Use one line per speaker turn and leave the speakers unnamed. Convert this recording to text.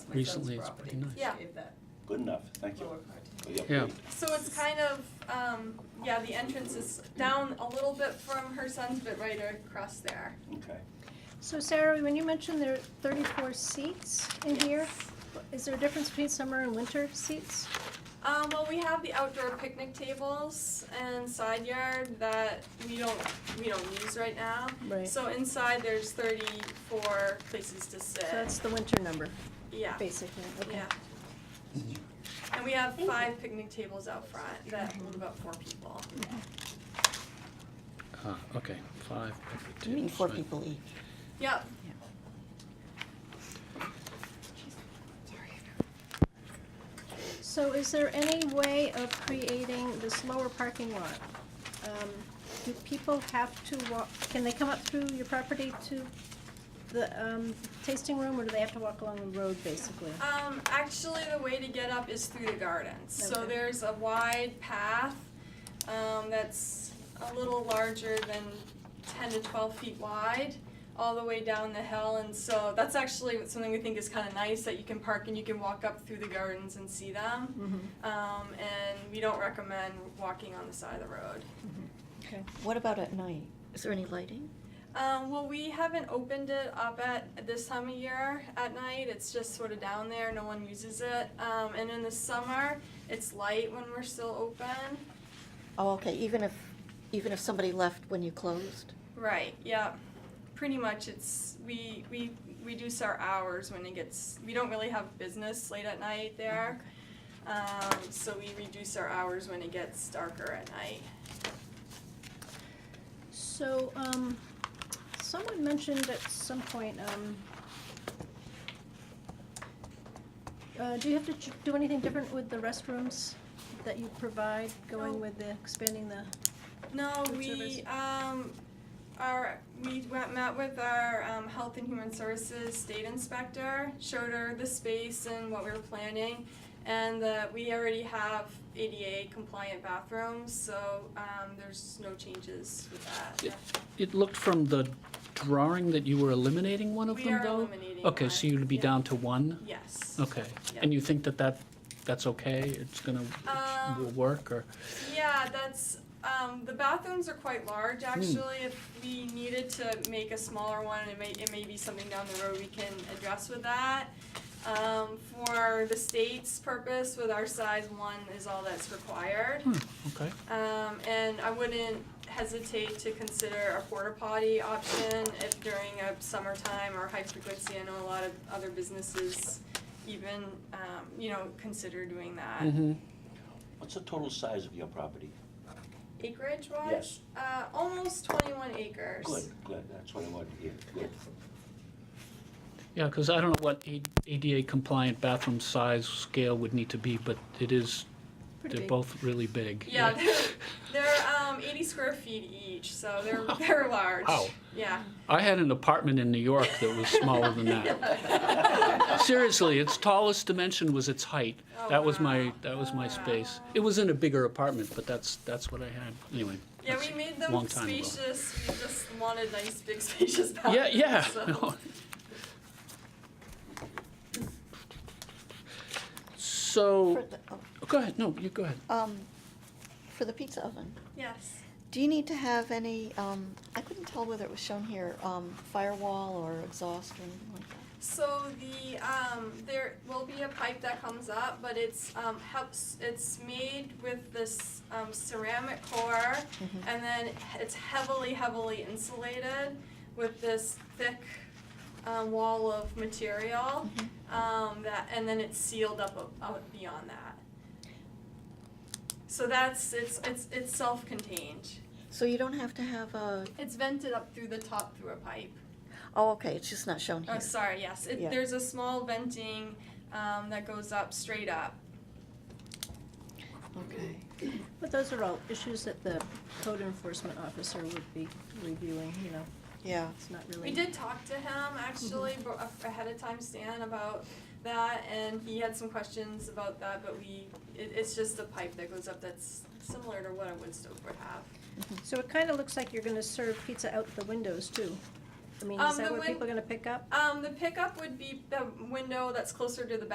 son's
recently, it's
property,
pretty nice.
Yeah.
Gave that
Good enough, thank you.
lower part.
for the
Yeah.
update.
So it's kind of, um, yeah, the entrance is down a little bit from her son's, but right across there.
Okay.
So Sarah, when you mentioned there are thirty-four seats in here,
Yes.
is there a difference between summer and winter seats?
Um, well, we have the outdoor picnic tables and side yard that we don't, we don't use right now.
Right. So
So inside, there's thirty-four places to sit,
that's the winter number,
yeah,
basically, okay.
yeah. And we have five picnic tables out front that hold about four people.
Ah, okay, five. picnic
You mean
tables,
four
right.
people each?
Yep,
So is there any way of creating this lower parking lot? Um, Do people have to walk, can they come up through your property to the um, tasting room, or do they have to walk along the road, basically?
Um, actually, the way to get up is through the gardens. So
Okay.
there's a wide path um, that's a little larger than 10 to 12 feet wide all the way down the hill. And so that's actually something we think is kind of nice that you can park and you can walk up through the gardens and see them. Um, and we don't recommend walking on the side of the road.
Okay.
What about at night? Is there any lighting?
Um, well, we haven't opened it up at this time of year at night. It's just sort of down there. No one uses it. Um, and in the summer, it's light when we're still open.
Oh, okay, even if, even if somebody left when you closed?
Right. Yeah. Pretty much, it's we we reduce our hours when it gets. We don't really have business late at night there, um, so we reduce our hours when it gets darker at night.
So, um, someone mentioned at some point, um, uh, do you have to ch- do anything different with the restrooms that you provide,
No.
going with the, expanding the,
No,
Food
we,
service.
um, our, we went, met with our, um, Health and Human Services State Inspector, showed her the space and what we were planning, and that we already have ADA compliant bathrooms, so, um, there's no changes with that.
Yeah. It looked from the drawing that you were eliminating one of
We
them,
are
though?
eliminating
Okay,
one,
so you'd be
yeah.
down to one?
Yes.
Okay.
Yeah.
And you think that that, that's okay? It's gonna, will
Um,
work, or?
yeah, that's, um, the bathrooms are quite large, actually, if we needed to make a smaller one, it may, it may be something down the road we can address with that. Um, for the state's purpose, with our size, one is all that's required.
Hmm, okay.
Um, and I wouldn't hesitate to consider a porta potty option if during a summertime or high frequency, I know a lot of other businesses even, um, you know, consider doing that.
Mm-hmm.
What's the total size of your property?
Acreage wise?
Yes.
Uh, almost twenty-one acres.
Good, good, that's what I wanted to hear, good.
Yeah, because I don't know what A- ADA compliant bathroom size scale would need to be, but it is,
pretty
they're
big?
both really big.
Yeah, they're, they're, um, eighty square feet each, so they're, they're large.
Wow.
Yeah.
I had an apartment in New York that was smaller than that. Seriously, its tallest dimension was its height.
Oh,
That was my,
wow.
that was my
Wow.
space. It was in a bigger apartment, but that's, that's what I had, anyway.
Yeah,
that's
we made
a long
them
time ago.
spacious, we just wanted nice big spacious
Yeah,
bathrooms,
yeah.
so-
no.
For
So,
the, oh,
go ahead, no, you go ahead.
um, for the pizza oven,
Yes.
do you need to have any, um, I couldn't tell whether it was shown here, um, firewall or exhaust or anything like that?
So the, um, there will be a pipe that comes up, but it's, um, helps, it's made with this, um, ceramic core. And then it's heavily, heavily insulated with this thick, um, wall of material. Um, that, and then it's sealed up, a- out beyond that. So that's, it's, it's, it's self-contained.
So you don't have to have a,
It's vented up through the top through a pipe.
oh, okay, it's just not shown
Oh,
here.
sorry, yes, it,
Yeah.
there's a small venting, um, that goes up, straight up.
Okay.
But those are all issues that the code enforcement officer would be reviewing, you know,
Yeah,
it's not really.
We did talk to him, actually,
Mm-hmm.
bo- a- ahead of time, Stan, about that, and he had some questions about that, but we, it, it's just a pipe that goes up that's similar to what a wood stove would have.
So it kinda looks like you're gonna serve pizza out the windows, too. I mean, is
Um,
that
the
what
win-
people are gonna pick up?
Um, the pickup would be the window that's closer to the